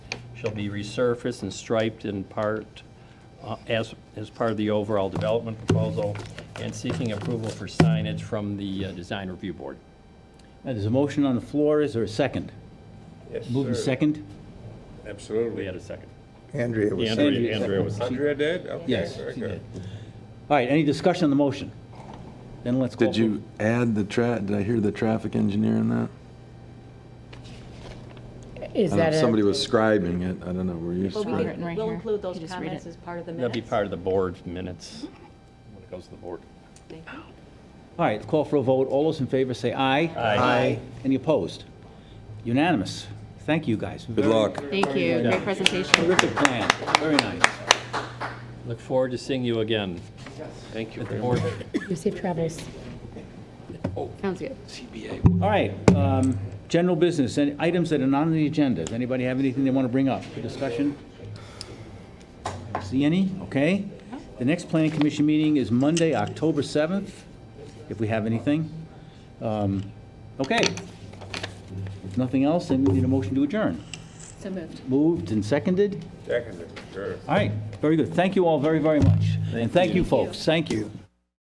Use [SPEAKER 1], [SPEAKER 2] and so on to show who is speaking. [SPEAKER 1] shall be resurfaced and striped in part uh, as, as part of the overall development proposal, and seeking approval for signage from the uh, Design Review Board.
[SPEAKER 2] Now, Uh, There's a motion on the floor, is there a second?
[SPEAKER 3] Yes,
[SPEAKER 2] Move in
[SPEAKER 3] sir.
[SPEAKER 2] second?
[SPEAKER 1] We
[SPEAKER 3] Absolutely.
[SPEAKER 1] had a second.
[SPEAKER 4] Andrea was saying.
[SPEAKER 1] Andrea Andrea was,
[SPEAKER 3] Andrea did? Okay,
[SPEAKER 2] Yes,
[SPEAKER 3] very
[SPEAKER 2] she
[SPEAKER 3] good.
[SPEAKER 2] did. All right, any discussion on the motion? Then let's call.
[SPEAKER 5] Did
[SPEAKER 2] for-
[SPEAKER 5] you add the tra, did I hear the traffic engineer in that?
[SPEAKER 6] Is
[SPEAKER 5] I don't know
[SPEAKER 6] that
[SPEAKER 5] if
[SPEAKER 6] a?
[SPEAKER 5] Somebody was scribing it, I don't know, were you
[SPEAKER 7] But we
[SPEAKER 5] scribing?
[SPEAKER 6] written right
[SPEAKER 7] can, we'll
[SPEAKER 6] here.
[SPEAKER 7] include those
[SPEAKER 6] You just read
[SPEAKER 7] comments
[SPEAKER 6] it.
[SPEAKER 7] as part of the
[SPEAKER 1] that'd
[SPEAKER 7] minutes.
[SPEAKER 1] be part of the board minutes, when it goes to the board.
[SPEAKER 7] Thank you.
[SPEAKER 2] All right, call for a vote, all those in favor say aye.
[SPEAKER 1] Aye.
[SPEAKER 4] Aye.
[SPEAKER 2] Any opposed? Unanimous. Thank you, guys.
[SPEAKER 5] Good luck.
[SPEAKER 6] Thank you, great presentation.
[SPEAKER 2] Terrific plan, very nice.
[SPEAKER 1] Look forward to seeing you again. Thank you. At the board.
[SPEAKER 6] You safe travels. Sounds good.
[SPEAKER 2] All right, um, general business, and items that are not on the agenda. Does anybody have anything they want to bring up for discussion? I don't See any? Okay. The next planning commission meeting is Monday, October 7th, if we have anything. Um, Okay. If nothing else, then we need a motion to adjourn.
[SPEAKER 6] So moved.
[SPEAKER 2] Moved and seconded?
[SPEAKER 3] Seconded, sure.
[SPEAKER 2] All right, very good. Thank you all very, very much. And thank you, folks. Thank you.